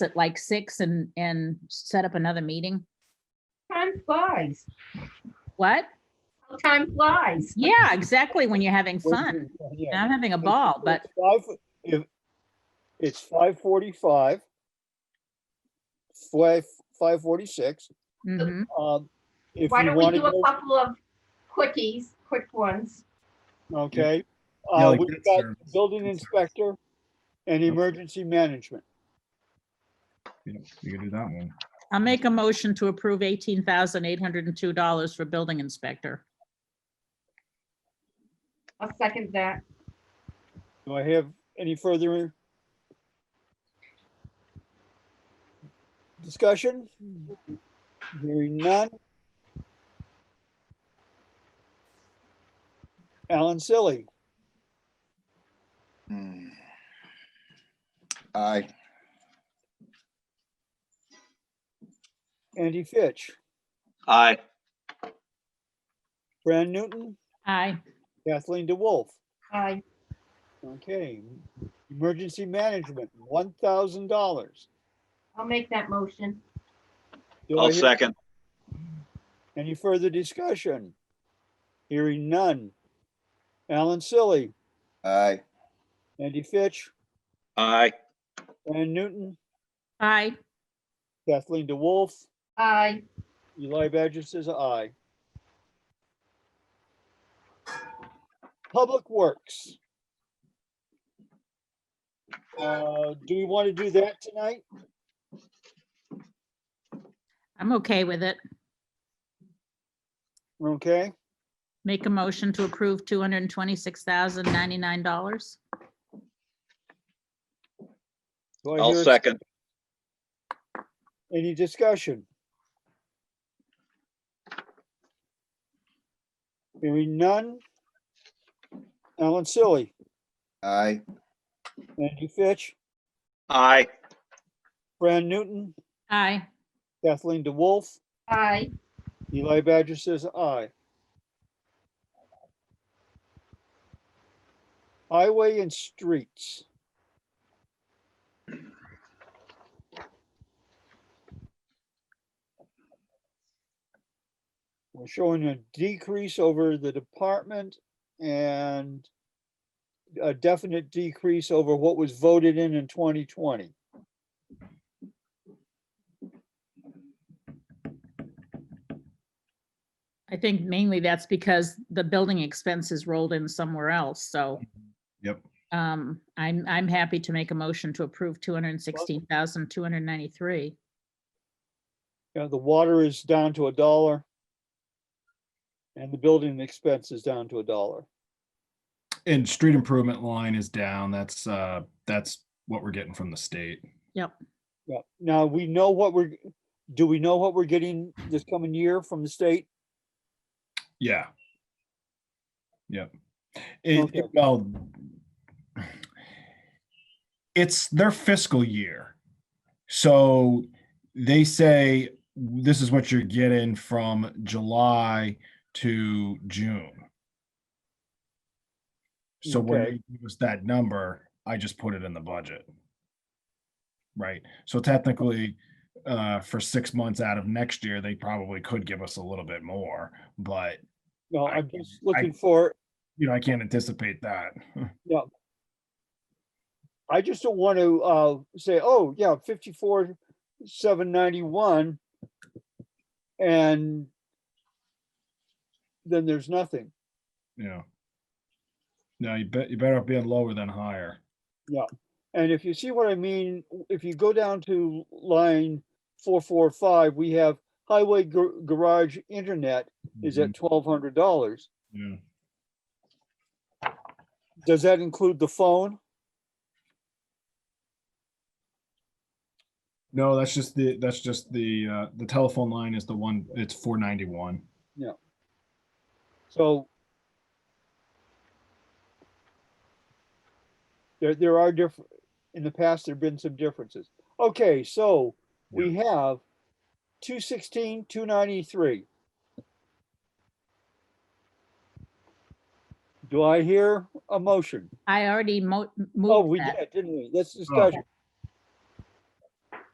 at like six and, and set up another meeting? Time flies. What? Time flies. Yeah, exactly, when you're having fun. And I'm having a ball, but It's five forty-five. Five, five forty-six. mhm. Um, if Why you don't we want to do go, a couple of quickies, quick ones? okay. Yeah, Uh, like we've that got service. building That service. inspector and emergency management. You know, you can do that one. I'll make a motion to approve eighteen thousand eight hundred and two dollars for building inspector. I'll second that. Do I have any further discussion? Hearing none. Alan Silly, Hmm. Aye, Andy Fitch, Aye. Fran Newton, Aye, Kathleen DeWolf. Aye. Okay, emergency management, one thousand dollars. I'll make that motion. I'll second. Any further discussion? Hearing none. Alan Silly, aye, Andy Fitch, Aye. Fran Newton, aye, Kathleen DeWolf, Aye. Eli Badger says aye. Public Works. Uh, Do we want to do that tonight? I'm okay with it. Okay, Make a motion to approve two hundred and twenty-six thousand ninety-nine dollars. Do I I'll hear second. Any discussion? Hearing none. Alan Silly, aye, Andy Fitch, Aye. Fran Newton, Aye, Kathleen DeWolf, Aye. Eli Badger says aye. Highway and streets. We're showing a decrease over the department and a definite decrease over what was voted in in 2020. I think mainly that's because the building expenses rolled in somewhere else, so. Yep. Um, I'm, I'm happy to make a motion to approve two hundred and sixteen thousand, two hundred and ninety-three. Yeah, the water is down to a dollar. And the building expense is down to a dollar. And street improvement line is down. That's, uh, that's what we're getting from the state. Yeah, now we know what we're, do we know what we're getting this coming year from the state? Yeah. Yep. It, Okay. it- well, it's their fiscal year. So they say, this is what you're getting from July to June. So when Okay. it was that number, I just put it in the budget. Right? So technically, uh, for six months out of next year, they probably could give us a little bit more, but No, I I'm just can- I- looking for, you know, I can't anticipate that. I just don't want to, uh, say, oh, yeah, fifty-four, seven ninety-one. And then there's nothing. Yeah. No, you bet, you better off being lower than higher. And if you see what I mean, w- if you go down to line four, four, five, we have highway gar- garage internet is at twelve hundred dollars. Mm-hmm. Yeah. Does that include the phone? No, that's just the, that's just the, uh, the telephone line is the one, it's four ninety-one. So there, there are different, in the past, there've been some differences. Okay, so we have two sixteen, two ninety-three. Do I hear a motion? I already mo- Oh, moved we that. did, didn't Oh, we? Let's discuss. Oh. it.